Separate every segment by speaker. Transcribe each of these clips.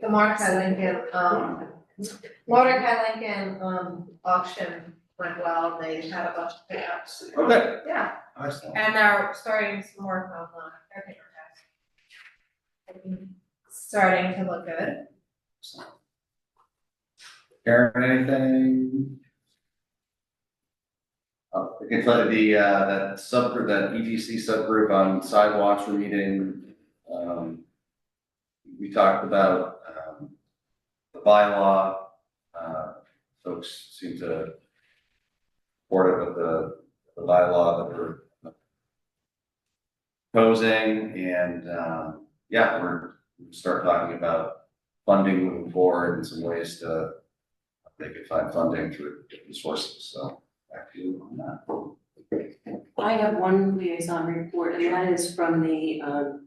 Speaker 1: the Mordecai Lincoln, um, Mordecai Lincoln, um, auction went well, they had a bunch of pickups,
Speaker 2: Okay.
Speaker 1: yeah,
Speaker 2: Excellent.
Speaker 1: and they're starting some work on, uh, their paper tax. Starting to look good,
Speaker 2: Karen, anything? Uh, I can tell you the, uh, that subgroup, that ETC subgroup on sidewalks were meeting, um. We talked about, um, the bylaw, uh, folks seem to. Support it with the, the bylaw that we're. Posing and, um, yeah, we're, we start talking about funding moving forward and some ways to they could find funding through different sources, so back to you on that.
Speaker 3: I have one liaison report, and that is from the, um,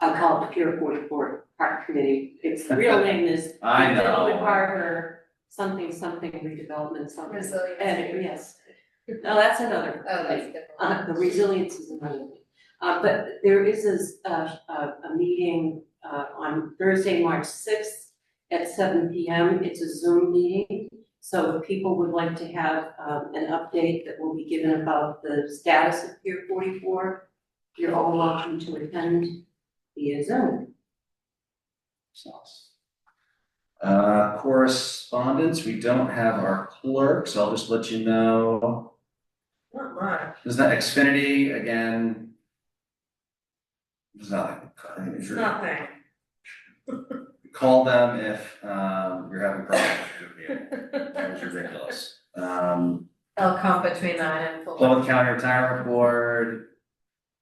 Speaker 3: I'll call it the Pier Forty-four Park Committee. Its real name is
Speaker 2: I know.
Speaker 3: Development Park or something, something redevelopment, something.
Speaker 1: resilience.
Speaker 3: And, yes. No, that's another.
Speaker 1: Oh, that's
Speaker 3: thing.
Speaker 1: different.
Speaker 3: Uh, the resilience is another thing. Uh, but there is this, uh, a, a meeting, uh, on Thursday, March sixth at seven P M. It's a Zoom meeting. So if people would like to have, um, an update that will be given about the status of Pier forty-four, you're all welcome to attend via Zoom.
Speaker 2: Sounds- Uh, correspondence, we don't have our clerk, so I'll just let you know,
Speaker 1: Not much.
Speaker 2: is that Xfinity again? There's nothing, if you're-
Speaker 1: Nothing.
Speaker 2: call them if, um, you're having problems with your meeting, that was ridiculous. Um,
Speaker 1: They'll come between nine and four.
Speaker 2: Plymouth County Retirement Board,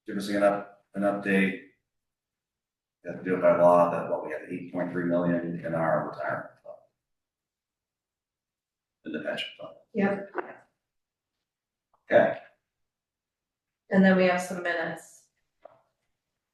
Speaker 2: give us an up, an update. Got to do it by law, that what we have eight point three million in our retirement fund. In the pension fund.
Speaker 1: Yep.
Speaker 2: Okay.
Speaker 1: And then we have some minutes.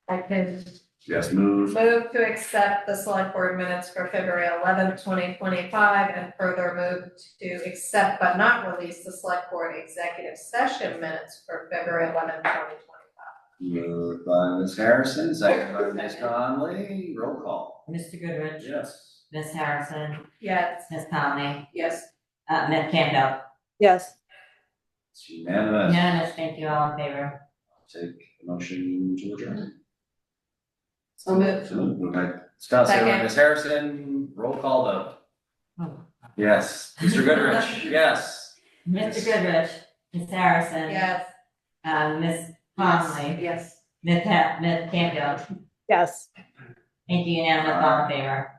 Speaker 1: I can
Speaker 2: Yes, move,
Speaker 1: move to accept the select board minutes for February eleventh, twenty twenty-five, and further move to accept but not release the select board executive session minutes for February eleventh, twenty twenty-five.
Speaker 2: move by Ms. Harrison, second by Ms. Conley, roll call.
Speaker 4: Mr. Goodrich,
Speaker 2: Yes.
Speaker 4: Miss Harrison,
Speaker 1: Yes.
Speaker 4: Miss Conley,
Speaker 3: Yes.
Speaker 4: uh, Ms. Campbell.
Speaker 5: Yes,
Speaker 2: It's unanimous.
Speaker 4: Unanimous, thank you, all in favor.
Speaker 2: Take a motion to adjourn.
Speaker 3: So moved.
Speaker 2: So moved by Scott, second by
Speaker 1: Second.
Speaker 2: Ms. Harrison, roll call though.
Speaker 4: Oh.
Speaker 2: Yes, Mr. Goodrich, yes.
Speaker 4: Mr. Goodrich, Miss Harrison.
Speaker 1: Yes.
Speaker 4: Uh, Ms. Conley,
Speaker 3: Yes.
Speaker 4: Ms. Ha- Ms. Campbell,
Speaker 5: yes.
Speaker 4: thank you, unanimous, all in favor.